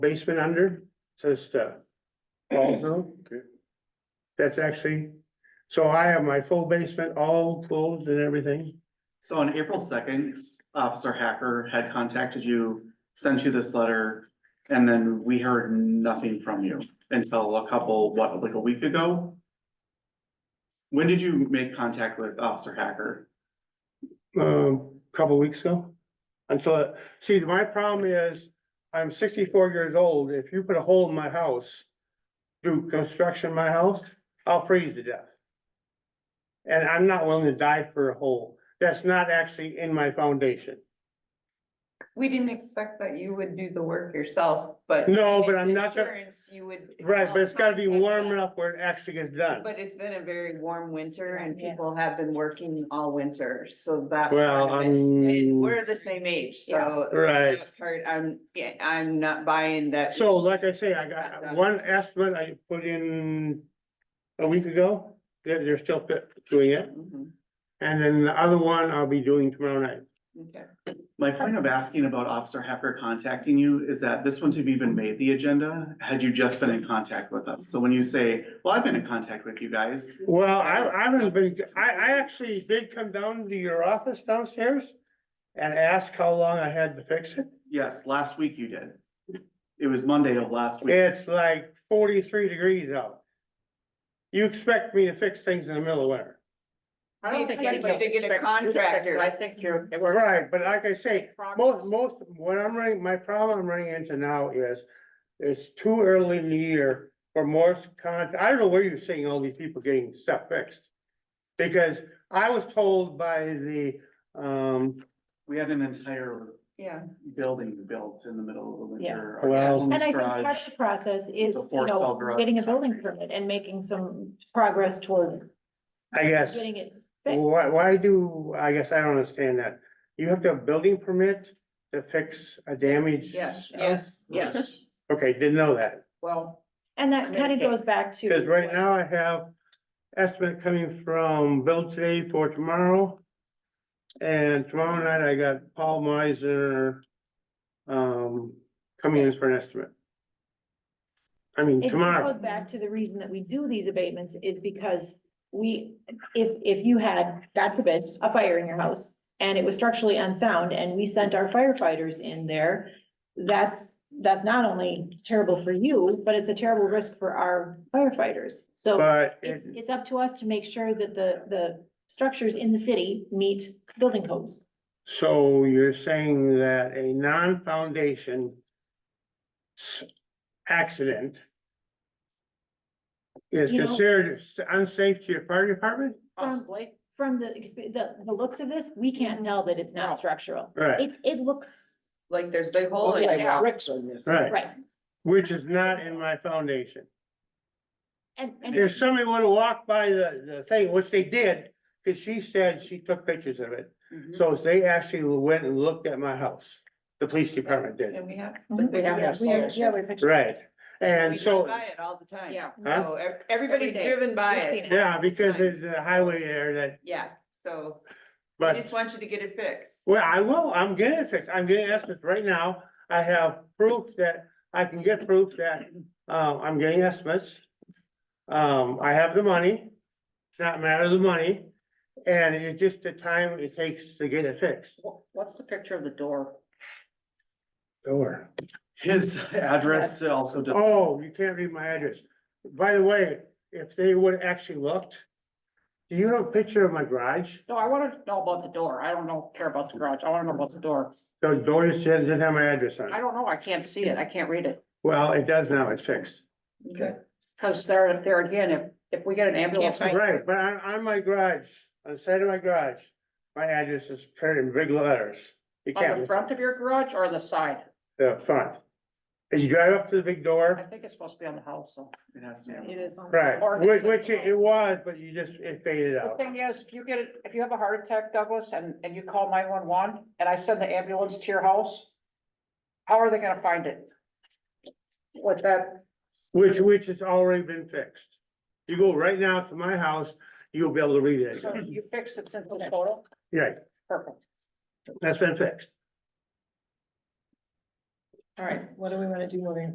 basement under, says stuff. No? Okay. That's actually, so I have my full basement all closed and everything. So on April second, Officer Hacker had contacted you, sent you this letter, and then we heard nothing from you until a couple, what, like a week ago? When did you make contact with Officer Hacker? um, couple weeks ago. Until, see, my problem is, I'm sixty-four years old, if you put a hole in my house, do construction in my house, I'll freeze to death. And I'm not willing to die for a hole, that's not actually in my foundation. We didn't expect that you would do the work yourself, but. No, but it's I'm not gonna- Insurance, you would. Right, but it's gotta be warm enough. enough where it actually gets done. But it's been a very warm winter and Yeah. people have been working all winter, so that. Well, part of it- And I'm, we're the same age, Yeah. so. Right. that Part, I'm, yeah, I'm not buying that. so like I say, I got one estimate I put in a week ago, they're, they're still fit- doing it. Mhm, And then the other one I'll be doing tomorrow night. okay. My point of asking about Officer Hacker contacting you is that this wouldn't have even made the agenda had you just been in contact with us. So when you say, well, I've been in contact with you guys, Well, I, Yes, I haven't been, that's- I, I actually did come down to your office downstairs and ask how long I had to fix it. yes, last week you did. It was Monday of last week. It's like forty-three degrees out. You expect me to fix things in the middle of winter. I We don't think expect you anybody to get a expects- contractor. I think you're. we're- Right, but like I say, most, Progress. most, what I'm running, my problem I'm running into now is, it's too early in the year for most con, I don't know where you're seeing all these people getting stuff fixed. Because I was told by the, um, We had an entire Yeah, building built in the middle of the winter. Yeah. Well- Our And I think part garage. of the process is, The you fourth cell know, garage. getting a building permit and making some progress toward I guess. getting it fixed. Why, why do, I guess I don't understand that. You have to have building permit to fix a damage? yes, yes, yes. Okay, didn't know that, Well, And that kind of goes back to. because right now I have estimate coming from Bill today for tomorrow. And tomorrow night I got Paul Meiser, um, coming in for an estimate. I mean, It goes tomorrow, back to the reason that we do these abatements is because we, if, if you had, God forbid, a fire in your house and it was structurally unsound and we sent our firefighters in there, that's, that's not only terrible for you, but it's a terrible risk for our firefighters. So but it's, it- it's up to us to make sure that the, the structures in the city meet building codes. So you're saying that a non-foundation s- accident is You know- considered s- unsafe to your fire department? Um, possibly. From the, exp- the, the looks of this, we can't tell that it's No. not structural. Right, It, it looks, Like there's a big hole in it. right, right, which is not in my foundation. and, and. If somebody would have walked by the, the thing, which they did, cause she said she took pictures of it. Mhm. So they actually went and looked at my house, the police department did, And we have. Mhm. we have Yeah, we have- yeah, we picture- right? We And drive so, By it all the time. Yeah. Huh? So ev- everybody's day. driven by Yeah. it. yeah, because there's a highway there that, Yeah, so but. I just want you to get it fixed. Well, I will, I'm getting it fixed, I'm getting estimates right now, I have proof that, I can get proof that, uh, I'm getting estimates. Um, I have the money, it's not a matter of the money, and it's just the time it takes to get it fixed. What's the picture of the door? Door. His address also, does- Oh, you can't read my address, by the way, if they would have actually looked, do you have a picture of my garage? No, I wanted to know about the door. I don't know, care about the garage. I wanna know about the door. The door just didn't have my address on I it, don't know. I can't see it. I can't read it. well, it does now, it's fixed. Okay. Cause there, there again, if, if we get an ambulance. Right, but on, on my garage, on the side of my garage, my address is printed in big letters. You On the can't, front of your garage or the side? the front. As you drive up to the big I door, think it's supposed to be on the house, so. it has Oh. to be. It is. right, Or- which, which it it was, but you just, it faded The out. thing is, if you get, it- if you have a heart attack, Douglas, and, and you call nine one one, and I send the ambulance to your house, how are they gonna find it? With that, Which, which has already been fixed. You go right now to my house, you'll be able to read it. so you fixed it since the photo, Yeah, perfect. that's been fixed. All right, what do we wanna do moving